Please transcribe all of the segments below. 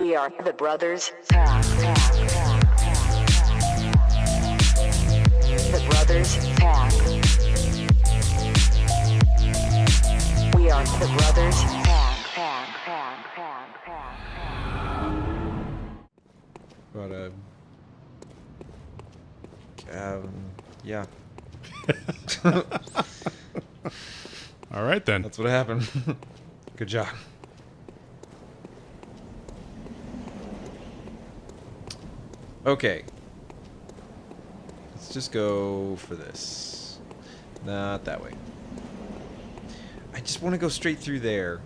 We are the Brothers Pack. The Brothers Pack. We are the Brothers Pack. Pack, pack, pack, pack, pack. But um, um, yeah, All right then. that's what happened. Good job. Okay, let's just go for this. Not that way. I just want to go straight through there.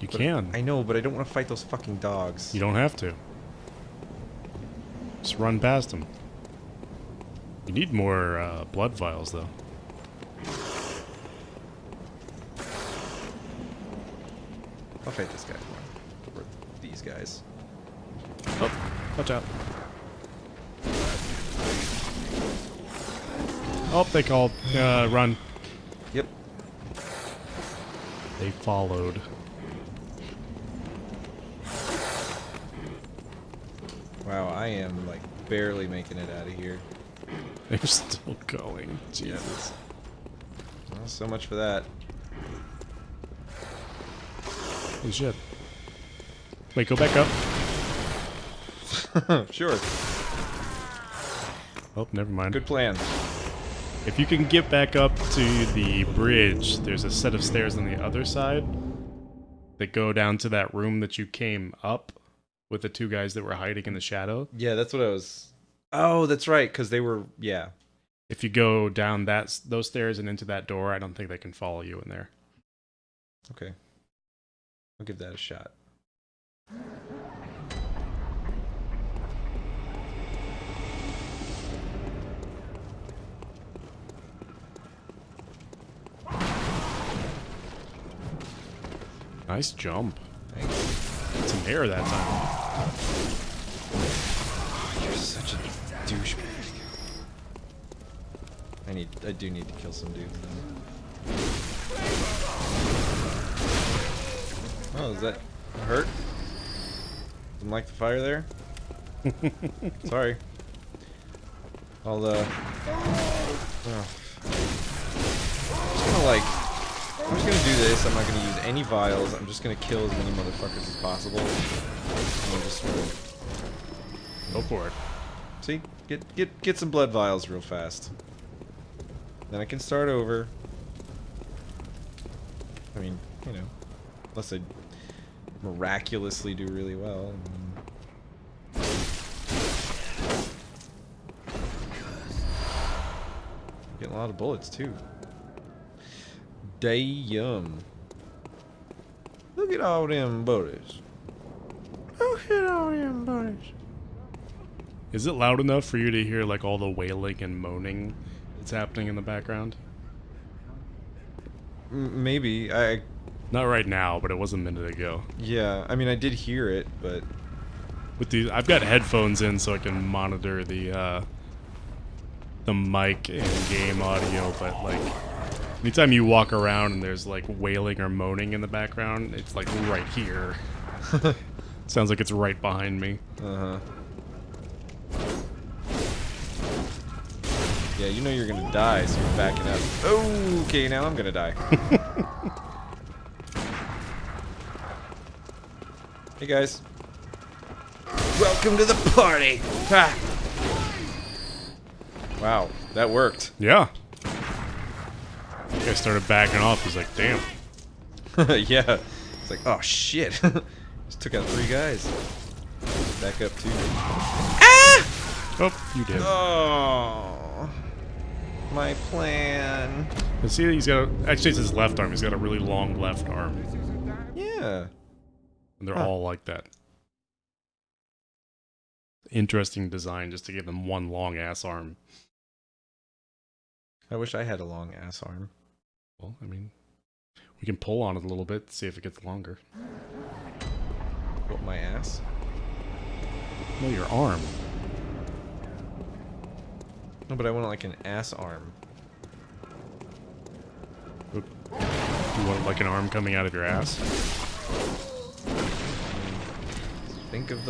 You But can. I know, but I don't want to fight those fucking dogs. You don't have to. Just run past them. You need more uh, blood vials, though. I'll fight this guy. Or these guys. Oh, watch out. Oh, they called. Uh, run. Yep. They followed. Wow, I am like barely making it out of here. They're still going. Jesus. Well, so much for that. Holy shit. Wait, go back up. sure. Oh, never mind. Good plan. If you can get back up to the bridge, there's a set of stairs on the other side that go down to that room that you came up with the two guys that were hiding in the shadow. Yeah, that's what I was. Oh, that's right, because they were. Yeah. If you go down that s- those stairs and into that door, I don't think they can follow you in there. Okay. I'll give that a shot. Nice jump. Thanks. It's an air that time. You're such a douchebag. I need. I do need to kill some dudes. Though. Oh, is that a hurt? Didn't like the fire there. Sorry. I'll uh. oh. I'm just gonna like. I'm just gonna do this. I'm not gonna use any vials. I'm just gonna kill as many motherfuckers as possible. And I'm just gonna Go for it. See, get get get some blood vials real fast. Then I can start over. I mean, you know, unless I miraculously do really well. I mean- Mm. Getting a lot of bullets too. Damn! Look at all them bullets. Look at all them bullets. Is it loud enough for you to hear like all the wailing and moaning that's happening in the background? M- Maybe I Not right now, but it was a minute ago. Yeah, I mean, I did hear it, but with these i've got headphones in so i can monitor the uh the mic and game audio but like anytime you walk around and there's like wailing or moaning in the background it's like right here sounds like it's right behind me uh huh. Yeah, you know you're gonna die, so you're backing up. Okay, now I'm gonna die. hey guys, welcome to the party. Ah. Wow, that worked. yeah i started backing off he's like damn yeah, it's like oh shit, just took out three guys. Back up too. oh you did Oh, my plan. And see he's got a, actually it's his left arm he's got a really long left arm Yeah. and they're Huh. all like that interesting design just to give them one long ass arm I wish I had a long ass arm. Well, I mean, we can pull on it a little bit, see if it gets longer. What, my ass? No, your arm. No, but I want like an ass arm. Oop. You want like an arm coming out of your ass? Think of the